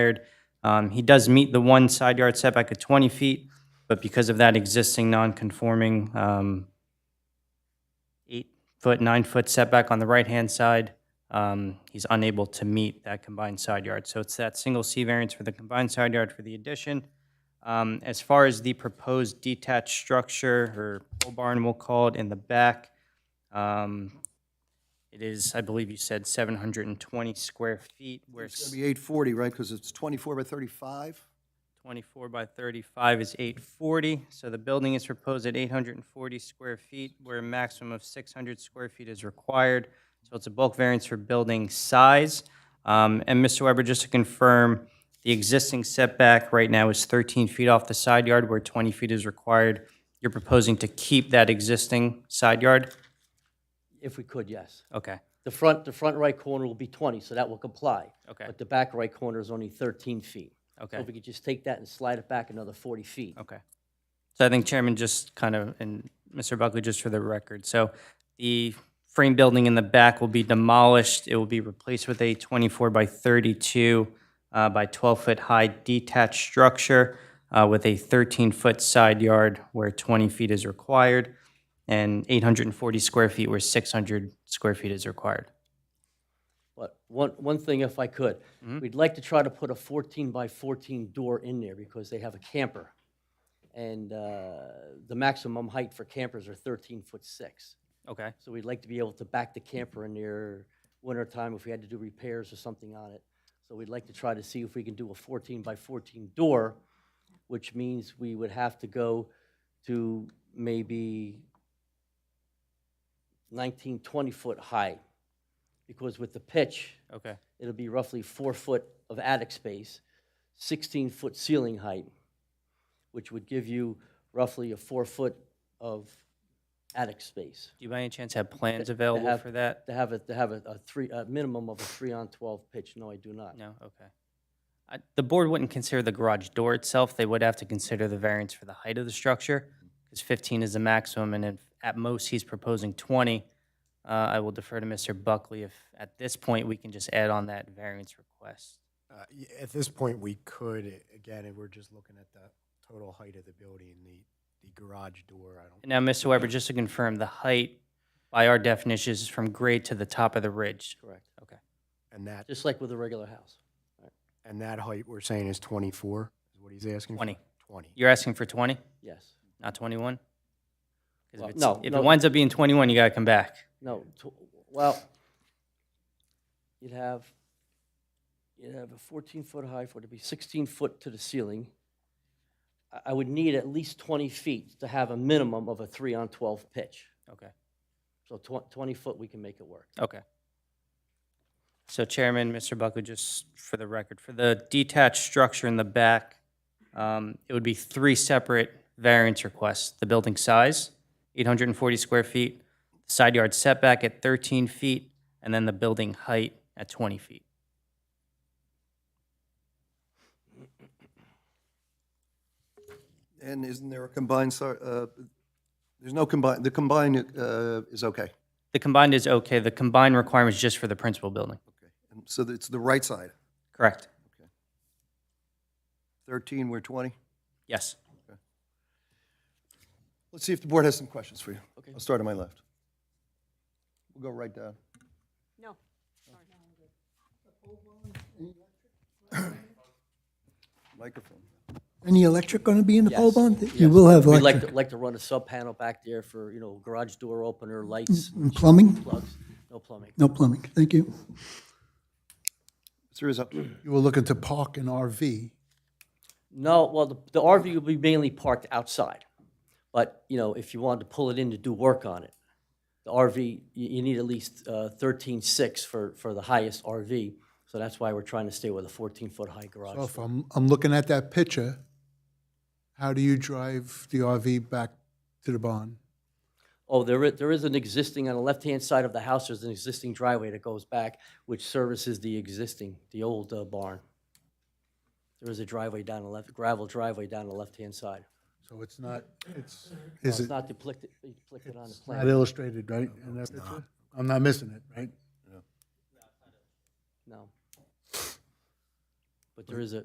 required. Um, He does meet the one side yard setback of 20 feet, but because of that existing non-conforming um, eight-foot, nine-foot setback on the right-hand side, um, he's unable to meet that combined side yard. So it's that single C variance for the combined side yard for the addition. Um, As far as the proposed detached structure, or pole barn we'll call it, in the back, um, it is, I believe you said 720 square feet, where It's gonna be eight forty, right, because it's twenty-four by thirty-five? 24 by 35 is 840, so the building is proposed at 840 square feet, where a maximum of 600 square feet is required. So it's a bulk variance for building size. Um, And Mr. Weber, just to confirm, the existing setback right now is 13 feet off the side yard, where 20 feet is required. You're proposing to keep that existing side yard? If we could, yes. Okay, The front, the front right corner will be 20, so that will comply. Okay. But the back right corner is only 13 feet. So okay, if we could just take that and slide it back another 40 feet. okay. So I think Chairman just kind of, and Mr. Buckley, just for the record, so the frame building in the back will be demolished. It will be replaced with a 24 by 32 uh, by 12-foot high detached structure uh, with a 13-foot side yard where 20 feet is required and 840 square feet where 600 square feet is required. But one, one thing if I could, Mm-hmm. we'd like to try to put a 14 by 14 door in there because they have a camper. And uh, the maximum height for campers are 13 foot 6. Okay. So we'd like to be able to back the camper in there wintertime if we had to do repairs or something on it. So we'd like to try to see if we can do a 14 by 14 door, which means we would have to go to maybe 19, 20 foot high. Because with the pitch, Okay. it'll be roughly four foot of attic space, 16 foot ceiling height, which would give you roughly a four foot of attic space Do you by any chance have plans available have- for that? to have a, to have a, a three, a minimum of a three on twelve pitch. No, I do not. No, okay. I- The board wouldn't consider the garage door itself, they would have to consider the variance for the height of the structure, because 15 is the maximum, and if at most he's proposing 20, uh, I will defer to Mr. Buckley if, at this point, we can just add on that variance request. Uh, y- At this point, we could, a- again, if we're just looking at the total height of the building, the, the garage door, I don't, And Now, Mr. Weber, just to confirm, the height, by our definition, is from grade to the top of the ridge. Correct. and that, Just like with a regular house. and that height we're saying is 24, is what he's asking? for? 20. 20. You're asking for 20, Yes. not 21? 'Cause if Well, it's- no, If no. it winds up being 21, you gotta come back. No, tw- well, you'd have, you'd have a fourteen foot high for it to be sixteen foot to the ceiling. I, I would need at least twenty feet to have a minimum of a three on twelve pitch. Okay. So tw- twenty foot, we can make it work. Okay. So Chairman, Mr. Buckley, just for the record, for the detached structure in the back, um, it would be three separate variance requests. The building size, 840 square feet, side yard setback at 13 feet, and then the building height at 20 feet. And isn't there a combined, si- uh, there's no combined, the combined, uh, is okay. The combined is okay. The combined requirement is just for the principal building. And So it's the right side, Correct? thirteen, we're twenty. Yes. Let's see if the board has some questions for you. Okay. I'll start on my left. We'll go right down. No. Microphone. Any electric going to be in the pole Yes, barn? You yes. will have We'd like, to electric. like to run a sub panel back there for, you know, garage door opener, lights, And Plumbing? plugs, no plumbing. No plumbing, thank you. Mr. Rizzo, You were looking to park an RV. No, well, the, the RV will be mainly parked outside. But, you know, if you wanted to pull it in to do work on it, the RV, you, you need at least thirteen-six for, for the highest RV. So that's why we're trying to stay with a fourteen-foot high So garage. if I'm, I'm looking at that picture, how do you drive the RV back to the barn? Oh, there is, there is an existing, on the left-hand side of the house, there's an existing driveway that goes back, which services the existing, the old uh, barn. There is a driveway down the left, gravel driveway down the left-hand side. So it's not, it's, Well, It's is it not depicted, depicted on the not plan, illustrated, right? in that picture? I'm not missing it, right? no. But there is a,